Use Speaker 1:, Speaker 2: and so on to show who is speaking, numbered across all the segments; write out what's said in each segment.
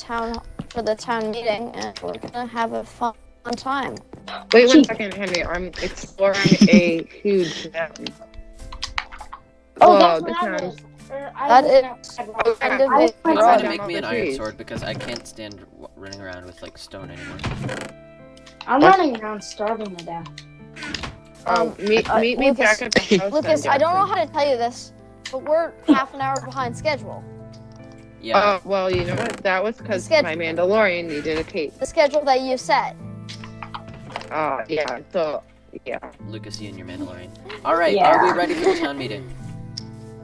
Speaker 1: town for the town meeting, and we're gonna have a fun time.
Speaker 2: Wait one second, Henry. I'm exploring a huge gem.
Speaker 3: Oh,
Speaker 1: Oh,
Speaker 2: Whoa,
Speaker 3: that's
Speaker 2: this
Speaker 3: what I
Speaker 2: sounds-
Speaker 3: was. Or I
Speaker 1: That
Speaker 3: was
Speaker 1: is-
Speaker 3: outside
Speaker 2: Oh,
Speaker 3: rock.
Speaker 2: yeah.
Speaker 1: Kind of it.
Speaker 3: I was
Speaker 2: Right
Speaker 4: Someone
Speaker 2: down
Speaker 3: outside.
Speaker 4: make me an
Speaker 2: the
Speaker 4: iron
Speaker 2: trees.
Speaker 4: sword because I can't stand w- running around with like stone anymore.
Speaker 3: I'm running around starving to death.
Speaker 2: Um, meet,
Speaker 1: uh,
Speaker 2: meet me
Speaker 1: Lucas-
Speaker 2: back at the house.
Speaker 1: Lucas,
Speaker 2: then,
Speaker 1: I don't know
Speaker 2: Jackson.
Speaker 1: how to tell you this, but we're half an hour behind schedule.
Speaker 4: Yeah.
Speaker 2: Uh, well, you know what? That was because
Speaker 1: Sketch-
Speaker 2: my Mandalorian needed a cape.
Speaker 1: The schedule that you set.
Speaker 2: Uh, yeah. So, yeah. Uh,
Speaker 4: Lucas, you and your Mandalorian. All right,
Speaker 3: Yeah.
Speaker 4: are we ready for the town meeting?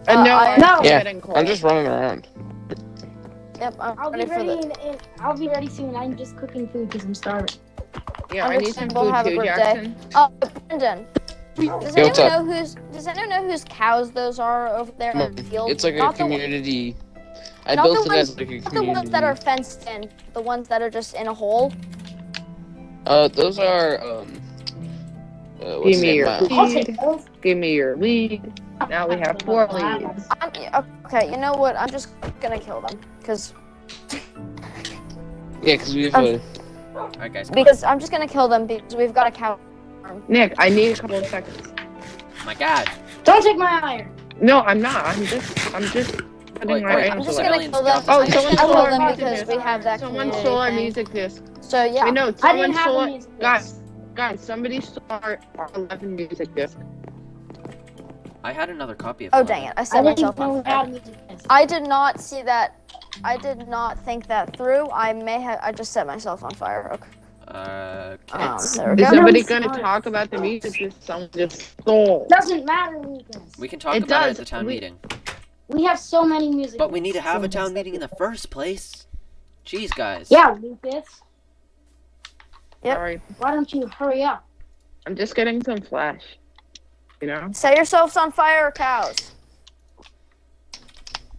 Speaker 2: Uh,
Speaker 1: Uh,
Speaker 2: no,
Speaker 1: I-
Speaker 2: I'm
Speaker 1: No.
Speaker 5: Yeah,
Speaker 2: getting cold.
Speaker 5: I'm just running around.
Speaker 1: Yep, I'm
Speaker 3: I'll
Speaker 1: ready,
Speaker 3: be ready.
Speaker 1: for the.
Speaker 3: In, in, I'll be ready soon. I'm just cooking food because I'm starving.
Speaker 2: Yeah, I need some
Speaker 1: Understandable,
Speaker 2: food
Speaker 1: have a
Speaker 2: too,
Speaker 1: good day.
Speaker 2: Jackson.
Speaker 1: Oh, Brendan. Does
Speaker 5: Yo,
Speaker 1: anyone
Speaker 5: what's
Speaker 1: know whose? Does anyone know whose cows those are over there in the field?
Speaker 5: It's like a
Speaker 1: Not the-
Speaker 5: community. I
Speaker 1: not
Speaker 5: built
Speaker 1: the
Speaker 5: it as
Speaker 1: ones-
Speaker 5: like a
Speaker 1: Not the
Speaker 5: community.
Speaker 1: ones that are fenced in. The ones that are just in a hole.
Speaker 5: Uh, those are um. Uh,
Speaker 2: Give
Speaker 5: what's the
Speaker 2: me
Speaker 5: name?
Speaker 2: your
Speaker 5: Uh,
Speaker 3: I'll take
Speaker 2: lead.
Speaker 3: those.
Speaker 2: Give me your lead. Now we have four leads.
Speaker 1: I'm, okay, you know what? I'm just gonna kill them because
Speaker 5: Yeah, because we have
Speaker 1: Um,
Speaker 5: a.
Speaker 4: All right, guys. Come
Speaker 1: because I'm just gonna kill them because we've got a cow.
Speaker 2: Nick, I need a couple of seconds.
Speaker 4: on. My God.
Speaker 3: Don't take my iron.
Speaker 2: No, I'm not. I'm just. I'm just. putting
Speaker 4: Wait,
Speaker 2: my
Speaker 4: wait,
Speaker 2: iron
Speaker 1: I'm
Speaker 4: I'm
Speaker 1: just
Speaker 2: away.
Speaker 4: sorry.
Speaker 1: gonna
Speaker 4: Aliens
Speaker 1: kill them.
Speaker 4: got
Speaker 2: Oh,
Speaker 1: I'm just
Speaker 2: someone
Speaker 1: gonna
Speaker 2: stole
Speaker 1: kill
Speaker 2: our
Speaker 1: them
Speaker 2: music
Speaker 1: because
Speaker 2: disc.
Speaker 1: we have that
Speaker 2: Someone
Speaker 1: community
Speaker 2: stole our
Speaker 1: thing.
Speaker 2: music disc.
Speaker 1: So yeah,
Speaker 2: Wait, no,
Speaker 3: I
Speaker 2: someone
Speaker 3: didn't have
Speaker 2: stole.
Speaker 3: a
Speaker 2: it-
Speaker 3: music
Speaker 2: Guys,
Speaker 3: disc.
Speaker 2: guys, somebody stole our, our 11 music disc.
Speaker 4: I had another copy of.
Speaker 1: Oh
Speaker 4: one.
Speaker 1: dang it! I
Speaker 3: I
Speaker 1: set
Speaker 3: didn't even
Speaker 1: myself
Speaker 3: know
Speaker 1: on
Speaker 3: we had a
Speaker 1: fire.
Speaker 3: music disc.
Speaker 1: I did not see that. I did not think that through. I may have. I just set myself on fire. Okay.
Speaker 4: Uh,
Speaker 1: Um,
Speaker 2: Is
Speaker 1: there we
Speaker 3: Yeah,
Speaker 1: go.
Speaker 2: somebody
Speaker 3: no,
Speaker 2: gonna
Speaker 3: sorry.
Speaker 2: talk about the music disc someone just stole?
Speaker 3: Doesn't matter, Lucas.
Speaker 4: we can talk
Speaker 2: It
Speaker 4: about
Speaker 2: does,
Speaker 4: it at the town
Speaker 2: we-
Speaker 4: meeting,
Speaker 3: We have so many music.
Speaker 4: but we need to have a
Speaker 3: discs.
Speaker 4: town meeting in the first place. Jeez, guys.
Speaker 3: Yeah, Lucas.
Speaker 1: Yep.
Speaker 2: Sorry,
Speaker 3: Why don't you hurry up?
Speaker 2: I'm just getting some flash. You know?
Speaker 1: Set yourselves on fire, cows.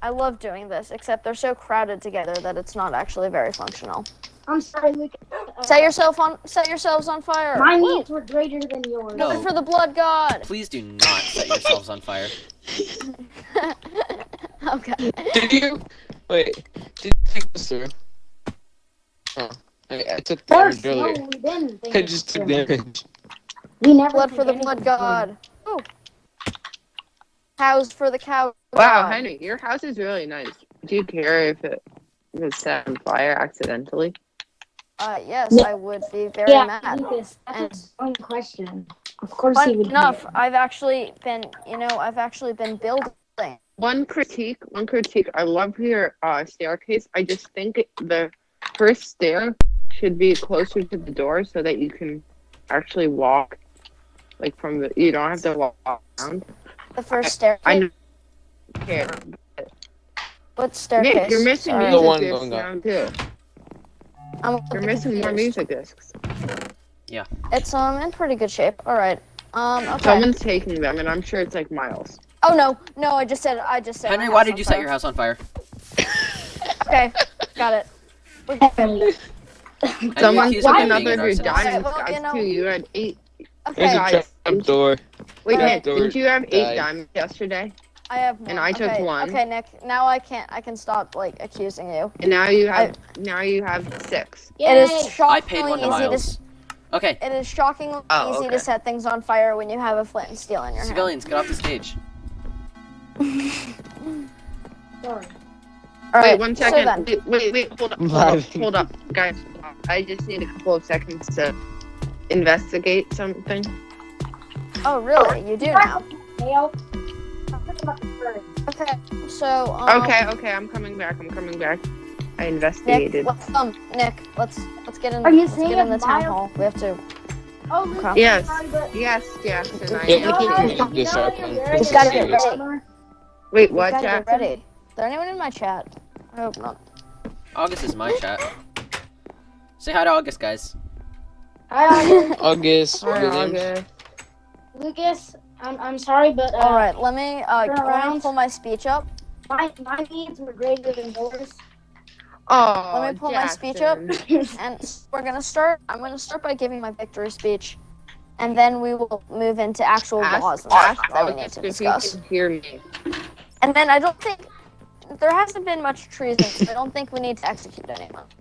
Speaker 1: I love doing this, except they're so crowded together that it's not actually very functional.
Speaker 3: I'm sorry, Lucas. Uh,
Speaker 1: Set yourself on. Set yourselves on fire.
Speaker 3: my needs were greater than yours.
Speaker 4: No.
Speaker 1: Coming for the blood god.
Speaker 4: Please do not set yourselves on fire.
Speaker 1: okay.
Speaker 5: Did you? Wait. Did you take this through? Oh, I, I took
Speaker 3: First,
Speaker 5: damage
Speaker 3: no, we
Speaker 5: earlier.
Speaker 3: didn't. think
Speaker 5: I
Speaker 3: it
Speaker 5: just
Speaker 3: was
Speaker 5: took
Speaker 3: good.
Speaker 5: damage.
Speaker 3: We never
Speaker 1: Blood
Speaker 3: did
Speaker 1: for the
Speaker 3: anything
Speaker 1: blood
Speaker 3: good.
Speaker 1: god. Ooh. Oh. Cows for the cow.
Speaker 2: Wow,
Speaker 1: god.
Speaker 2: Henry, your house is really nice. Do you care if it was set on fire accidentally?
Speaker 1: Uh, yes,
Speaker 3: Yeah.
Speaker 1: I would be very
Speaker 3: Yeah,
Speaker 1: mad.
Speaker 3: Lucas,
Speaker 1: And-
Speaker 3: that's a one question. Of course he
Speaker 1: Fun
Speaker 3: would.
Speaker 1: enough, I've actually been, you know, I've actually been building.
Speaker 2: One critique, one critique. I love your uh, staircase. I just think it- the first stair should be closer to the door so that you can actually walk, like from the. You don't have to walk around.
Speaker 1: The first staircase.
Speaker 2: I know. Okay.
Speaker 1: What staircase?
Speaker 2: Nick, you're missing
Speaker 1: Sorry.
Speaker 5: The one
Speaker 2: music discs
Speaker 5: going
Speaker 2: now
Speaker 5: up.
Speaker 2: too.
Speaker 1: I'm a
Speaker 2: You're
Speaker 1: bit
Speaker 2: missing more
Speaker 1: confused.
Speaker 2: music discs.
Speaker 1: It's um in pretty good shape. All right. Um. Okay.
Speaker 2: Someone's taking them, and I'm sure it's like Miles.
Speaker 1: Oh no, no! I just said. I just said.
Speaker 4: Henry,
Speaker 1: my
Speaker 4: why
Speaker 1: house
Speaker 4: did
Speaker 1: on
Speaker 4: you
Speaker 1: fire.
Speaker 4: set your house on fire?
Speaker 1: Okay, got it. We're good.
Speaker 3: Henry,
Speaker 4: And you
Speaker 2: Someone
Speaker 4: accused
Speaker 2: took
Speaker 4: me
Speaker 3: why did
Speaker 4: of
Speaker 2: another
Speaker 4: being
Speaker 2: of
Speaker 4: an
Speaker 2: your
Speaker 4: arsonist.
Speaker 2: diamonds,
Speaker 1: Well,
Speaker 2: guys.
Speaker 1: you know-
Speaker 2: Too. You had eight.
Speaker 5: There's
Speaker 1: Okay,
Speaker 2: Guys,
Speaker 5: a
Speaker 2: I'm-
Speaker 5: trap door.
Speaker 2: Wait,
Speaker 1: Alright.
Speaker 2: Nick, didn't you have eight
Speaker 5: Guys.
Speaker 2: diamonds yesterday?
Speaker 1: I have one.
Speaker 2: and I took
Speaker 1: okay.
Speaker 2: one.
Speaker 1: Okay, Nick. Now I can't. I can stop like accusing you.
Speaker 2: And now you have now you have six.
Speaker 1: It
Speaker 3: yay.
Speaker 1: is
Speaker 4: I
Speaker 1: shockingly
Speaker 4: paid one to
Speaker 1: easy to.
Speaker 4: Miles. Okay,
Speaker 1: s- It is shockingly
Speaker 2: Oh,
Speaker 1: easy
Speaker 2: okay.
Speaker 1: to set things on fire when you have a flint and steel in your hand.
Speaker 4: civilians, get off the stage.
Speaker 3: Sorry.
Speaker 1: All
Speaker 2: wait,
Speaker 1: right,
Speaker 2: one
Speaker 1: So
Speaker 2: second.
Speaker 1: then,
Speaker 2: wait, wait, wait, hold up,
Speaker 5: I'm
Speaker 2: hold up,
Speaker 5: laughing.
Speaker 2: hold up, guys. I just need a couple of seconds to investigate something.
Speaker 1: oh really? You do now.
Speaker 3: Dale.
Speaker 1: Okay. So. Um,
Speaker 2: Okay, okay, I'm coming back. I'm coming back. I
Speaker 1: Nick,
Speaker 2: investigated.
Speaker 1: let's, um, Nick, let's let's get in.
Speaker 3: Are you
Speaker 1: let's
Speaker 3: seeing
Speaker 1: get in the
Speaker 3: a
Speaker 1: town
Speaker 3: mile-
Speaker 1: hall. We have to.
Speaker 3: Oh, Lucas,
Speaker 2: Yes.
Speaker 3: sorry, but
Speaker 2: Yes, Jackson, I
Speaker 5: Yeah, we
Speaker 3: you know
Speaker 5: can
Speaker 2: am.
Speaker 3: how-
Speaker 5: keep
Speaker 3: you
Speaker 5: this
Speaker 3: know how
Speaker 5: up
Speaker 3: you're
Speaker 5: and
Speaker 3: wearing
Speaker 1: Just gotta get
Speaker 3: this
Speaker 1: ready.
Speaker 3: armor?
Speaker 2: Wait,
Speaker 1: we
Speaker 2: what,
Speaker 1: gotta get
Speaker 2: Jackson?
Speaker 1: ready. Is there anyone in my chat? I hope not.
Speaker 4: August is my chat. Say hi to August, guys.
Speaker 3: Hi,
Speaker 5: August.
Speaker 2: Hi,
Speaker 5: Williams.
Speaker 2: August.
Speaker 3: Lucas, I'm, I'm sorry, but uh,
Speaker 1: All right, let me uh,
Speaker 3: Turn
Speaker 1: go ahead
Speaker 3: around.
Speaker 1: and pull my speech up.
Speaker 3: my, my needs were greater than yours.
Speaker 2: Oh,
Speaker 1: Let me pull my speech up.
Speaker 2: Jackson.
Speaker 1: And s- we're gonna start. I'm gonna start by giving my victory speech, and then we will move into actual
Speaker 2: Ask,
Speaker 1: laws and
Speaker 2: ask
Speaker 1: stuff that we need
Speaker 2: August
Speaker 1: to
Speaker 2: if you
Speaker 1: discuss.
Speaker 2: can hear me.
Speaker 1: And then I don't think there hasn't been much treason, so I don't think we need to execute anyone.